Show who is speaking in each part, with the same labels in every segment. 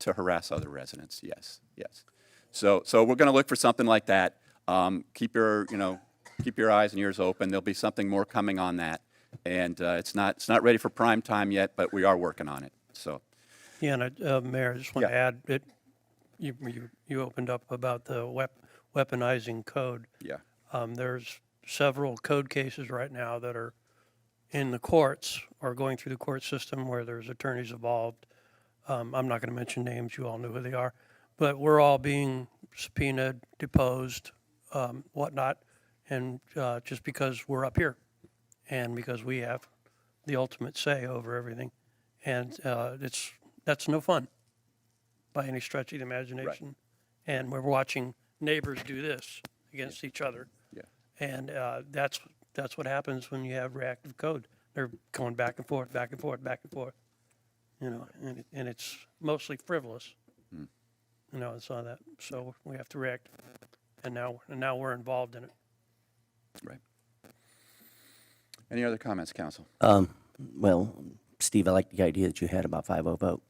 Speaker 1: to harass other residents, yes, yes. So, so we're going to look for something like that. Um, Keep your, you know, keep your eyes and ears open. There'll be something more coming on that. And uh, it's not, it's not ready for prime time yet, but we are working on it, so.
Speaker 2: Yeah, and I- uh, Mayor, I just want to
Speaker 1: Yeah.
Speaker 2: add that you, you, you opened up about the wep- weaponizing code.
Speaker 1: Yeah.
Speaker 2: Um, there's several code cases right now that are in the courts or going through the court system where there's attorneys involved. Um, I'm not going to mention names, you all know who they are, but we're all being subpoenaed, deposed, um, whatnot, and uh, just because we're up here and because we have the ultimate say over everything. And uh, it's, that's no fun by any stretch of the imagination. And we're watching neighbors do this against each other.
Speaker 1: Yeah.
Speaker 2: And uh, that's, that's what happens when you have reactive code. They're going back and forth, back and forth, back and forth, you know, and, it- and it's mostly frivolous. You know, I saw that, so we have to react, and now, and now we're involved in it.
Speaker 1: Right. Any other comments, council?
Speaker 3: Um, Well, Steve, I like the idea that you had about 5-0 vote.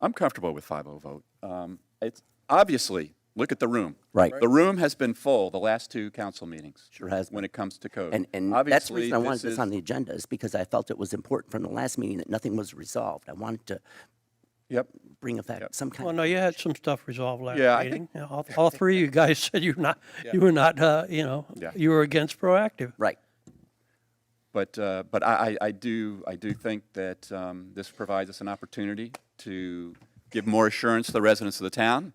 Speaker 1: I'm comfortable with 5-0 vote. Um, It's, obviously, look at the room.
Speaker 3: Right.
Speaker 1: The room has been full the last two council meetings.
Speaker 3: Sure has been.
Speaker 1: When it comes to code.
Speaker 3: And, and that's the reason
Speaker 1: Obviously,
Speaker 3: I wanted
Speaker 1: this
Speaker 3: this on
Speaker 1: is-
Speaker 3: the agenda, is because I felt it was important from the last meeting that nothing was resolved. I wanted to
Speaker 1: Yep,
Speaker 3: bring effect, some
Speaker 2: Well,
Speaker 3: kind,
Speaker 2: no, you had some stuff resolved last
Speaker 1: Yeah, I
Speaker 2: meeting. Yeah, All, all three of you guys said you're not, you were not, uh, you know,
Speaker 1: Yeah.
Speaker 2: you were against proactive.
Speaker 3: right.
Speaker 1: But, uh, but I, I I do, I do think that um, this provides us an opportunity to give more assurance to the residents of the town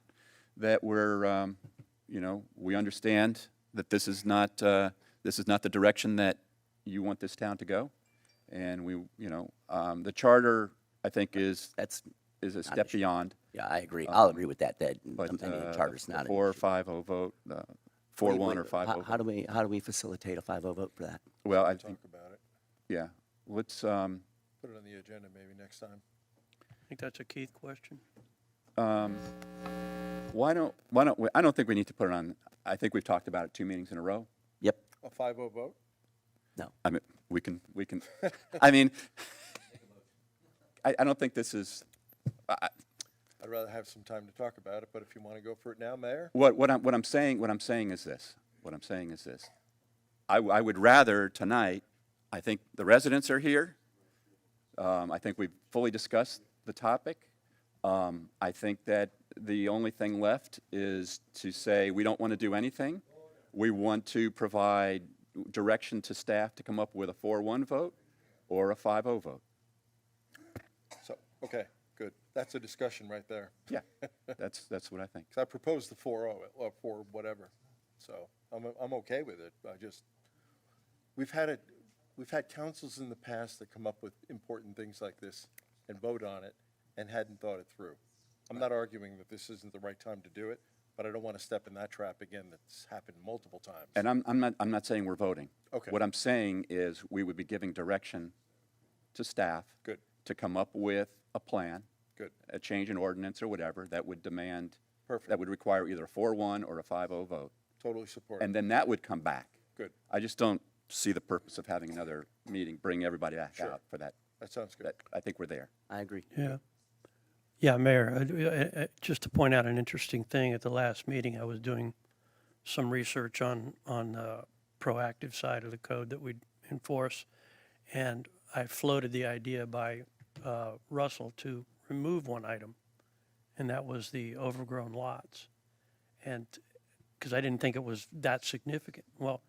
Speaker 1: that we're, um, you know, we understand that this is not, uh, this is not the direction that you want this town to go. And we, you know, um, the charter, I think, is,
Speaker 3: That's,
Speaker 1: is a step beyond.
Speaker 3: yeah, I agree. I'll agree with that, that
Speaker 1: Uh, But
Speaker 3: amending the
Speaker 1: uh,
Speaker 3: charter's
Speaker 1: the
Speaker 3: not. an
Speaker 1: four or
Speaker 3: issue.
Speaker 1: five oh vote, uh, four one or
Speaker 3: How-
Speaker 1: five oh.
Speaker 3: How do we, how do we facilitate a 5-0 vote for that?
Speaker 1: Well, I think,
Speaker 4: about it.
Speaker 1: yeah, let's, um,
Speaker 4: Put it on the agenda maybe next time.
Speaker 2: I think that's a Keith question.
Speaker 1: Um, Why don't, why don't, we- I don't think we need to put it on, I think we've talked about it two meetings in a row.
Speaker 3: Yep,
Speaker 4: A five oh vote?
Speaker 3: no.
Speaker 1: I mean, we can, we can, I mean, I, I don't think this is,
Speaker 4: I'd rather have some time to talk about it, but if you want to go for it now, Mayor?
Speaker 1: what, what I'm, what I'm saying, what I'm saying is this, what I'm saying is this. I, w- I would rather tonight, I think the residents are here. Um, I think we've fully discussed the topic. Um, I think that the only thing left is to say, we don't want to do anything. We want to provide direction to staff to come up with a 4-1 vote or a 5-0 vote.
Speaker 4: So, okay, good. That's a discussion right there.
Speaker 1: Yeah, that's, that's what I think.
Speaker 4: Because I proposed the four oh, or four whatever. So I'm, I'm okay with it. I just, we've had it, we've had councils in the past that come up with important things like this and vote on it and hadn't thought it through. I'm not arguing that this isn't the right time to do it, but I don't want to step in that trap again that's happened multiple times.
Speaker 1: And I'm, I'm not, I'm not saying we're voting.
Speaker 4: Okay.
Speaker 1: What I'm saying is, we would be giving direction to staff.
Speaker 4: Good.
Speaker 1: To come up with a plan,
Speaker 4: Good,
Speaker 1: a change in ordinance or whatever, that would demand.
Speaker 4: Perfect.
Speaker 1: That would require either a four-one or a five-oh vote,
Speaker 4: totally support it.
Speaker 1: and then that would come back.
Speaker 4: Good.
Speaker 1: I just don't see the purpose of having another meeting, bring everybody back out for that.
Speaker 4: That sounds good.
Speaker 1: That, I think we're there.
Speaker 3: I agree.
Speaker 2: Yeah. Yeah, Mayor, I- I- I- just to point out an interesting thing, at the last meeting, I was doing some research on, on the proactive side of the code that we enforce. And I floated the idea by uh, Russell to remove one item, and that was the overgrown lots. And, because I didn't think it was that significant. Well,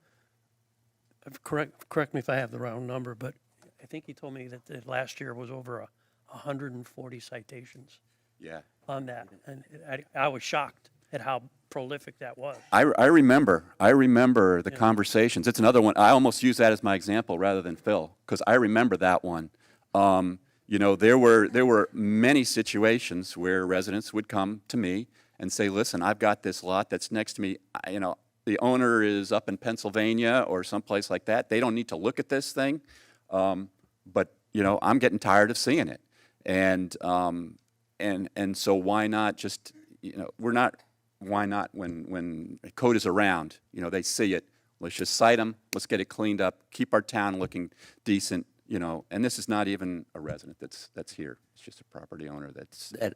Speaker 2: if- correct, correct me if I have the wrong number, but I think he told me that the last year was over a 140 citations
Speaker 1: Yeah.
Speaker 2: on that. And I, I was shocked at how prolific that was.
Speaker 1: I, I remember, I remember the conversations. It's another one. I almost use that as my example rather than Phil because I remember that one. Um, you know, there were there were many situations where residents would come to me and say, "Listen, I've got this lot that's next to me. I, you know, the owner is up in Pennsylvania or someplace like that. They don't need to look at this thing, um, but you know, I'm getting tired of seeing it." and um, and and so why not just you know we're not why not when when a code is around you know they see it let's just cite them let's get it cleaned up keep our town looking decent you know and this is not even a resident that's that's here it's just a property owner that's
Speaker 3: That,